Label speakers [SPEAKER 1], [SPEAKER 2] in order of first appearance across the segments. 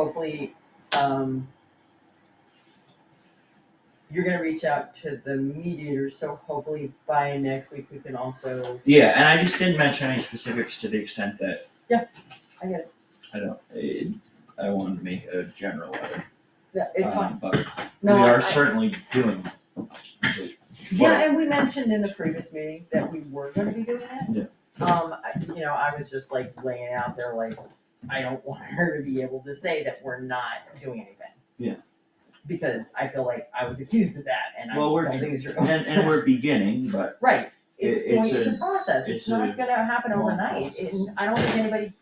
[SPEAKER 1] hopefully, um, you're gonna reach out to the mediator, so hopefully by next week we can also,
[SPEAKER 2] Yeah, and I just didn't mention any specifics to the extent that.
[SPEAKER 1] Yeah, I get
[SPEAKER 2] it. I don't, it, I wanted to make a general letter,
[SPEAKER 1] yeah, it's fine.
[SPEAKER 2] um, but we
[SPEAKER 1] No,
[SPEAKER 2] are
[SPEAKER 1] I-
[SPEAKER 2] certainly doing.
[SPEAKER 1] Yeah, and we mentioned in the previous meeting that we were gonna be doing it. Um, I- you know, I was just like laying it out there like, I don't want her to be able to say that we're not doing anything.
[SPEAKER 2] Yeah.
[SPEAKER 1] Because I feel like I was accused of that and I
[SPEAKER 2] Well, we're-
[SPEAKER 1] don't think it's.
[SPEAKER 2] And, and we're beginning, but
[SPEAKER 1] Right, it's
[SPEAKER 2] It- it's
[SPEAKER 1] going, it's a process,
[SPEAKER 2] it's
[SPEAKER 1] it's not
[SPEAKER 2] a
[SPEAKER 1] gonna happen
[SPEAKER 2] long
[SPEAKER 1] overnight,
[SPEAKER 2] process.
[SPEAKER 1] and I don't think anybody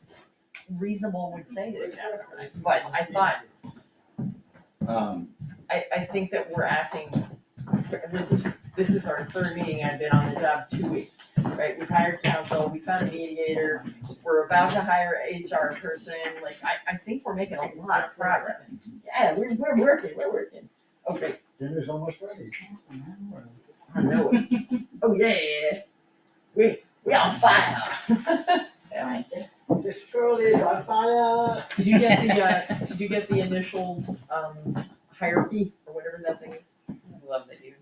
[SPEAKER 1] reasonable would say that it's happening overnight, but I thought,
[SPEAKER 2] um,
[SPEAKER 1] I, I think that we're acting, this is, this is our third meeting, I've been on the job two weeks, right? We've hired counsel, we found a mediator, we're about to hire a HR person, like, I, I think we're making a lot of progress. Yeah, we're, we're working, we're working. Okay,
[SPEAKER 3] Dinner's almost ready.
[SPEAKER 1] I know it. Oh, yeah, yeah, yeah. We, we on fire. Alright.
[SPEAKER 3] This girl is on fire.
[SPEAKER 1] Did you get the, uh, did you get the initial, um, hierarchy or whatever that thing is?
[SPEAKER 4] Love that you.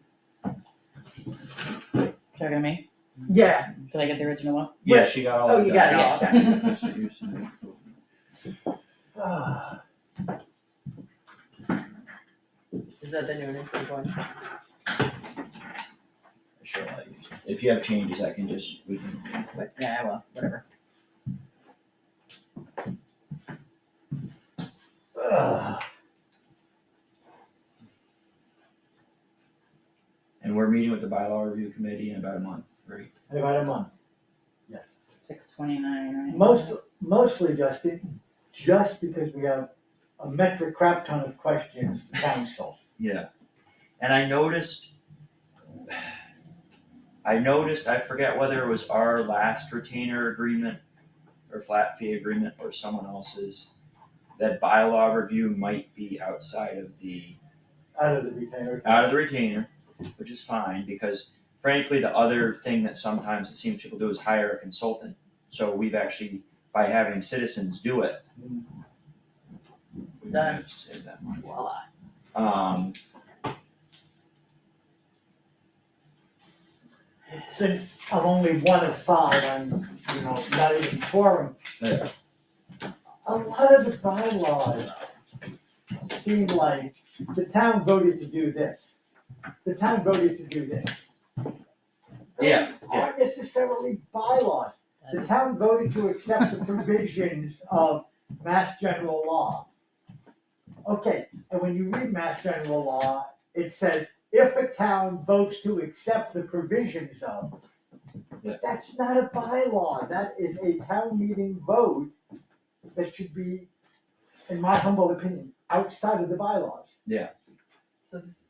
[SPEAKER 4] Talking to me?
[SPEAKER 1] Yeah.
[SPEAKER 4] Did I get the original one?
[SPEAKER 2] yeah, she got all
[SPEAKER 1] Oh,
[SPEAKER 2] of that.
[SPEAKER 1] you got it all.
[SPEAKER 3] Ah,
[SPEAKER 1] Is that the new initial one?
[SPEAKER 2] Sure, I'll use it. if you have changes, I can just, we can,
[SPEAKER 1] What- Yeah, well, whatever.
[SPEAKER 3] ah.
[SPEAKER 2] and we're meeting with the bylaw review committee in about a month, right?
[SPEAKER 3] In About a month. Yes.
[SPEAKER 4] Six twenty-nine, right?
[SPEAKER 3] Most, mostly, Justin, just because we have a metric crap ton of questions for council.
[SPEAKER 2] Yeah, and I noticed. I noticed, I forget whether it was our last retainer agreement or flat fee agreement or someone else's. That bylaw review might be outside of the,
[SPEAKER 3] out of the retainer.
[SPEAKER 2] out of the retainer, which is fine, because frankly, the other thing that sometimes it seems people do is hire a consultant. So we've actually, by having citizens do it. We don't have to save that money.
[SPEAKER 1] Voila.
[SPEAKER 2] Um,
[SPEAKER 3] Since I'm only one of five, I'm, you know, not even quorum.
[SPEAKER 2] Yeah.
[SPEAKER 3] A lot of the bylaws seem like the town voted to do this. The town voted to do this.
[SPEAKER 2] Yeah, yeah.
[SPEAKER 3] Aren't necessarily bylaws. The town voted to accept the provisions of mass general law. Okay, and when you read mass general law, it says if a town votes to accept the provisions of.
[SPEAKER 2] Yeah.
[SPEAKER 3] That's not a bylaw, that is a town meeting vote that should be, in my humble opinion, outside of the bylaws.
[SPEAKER 1] So this.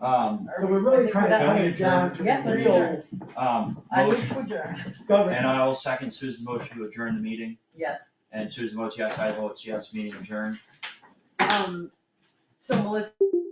[SPEAKER 2] um,
[SPEAKER 3] So we're really trying to
[SPEAKER 2] Can we
[SPEAKER 3] hone it down to
[SPEAKER 1] adjourn? Yeah, let's
[SPEAKER 3] real
[SPEAKER 2] um,
[SPEAKER 1] I
[SPEAKER 2] motion-
[SPEAKER 1] wish would adjourn.
[SPEAKER 2] And
[SPEAKER 3] government.
[SPEAKER 2] I will second Susan's motion to adjourn the meeting,
[SPEAKER 1] Yes.
[SPEAKER 2] and Susan votes yes, I vote yes, meeting adjourned.
[SPEAKER 1] Um, so Melissa.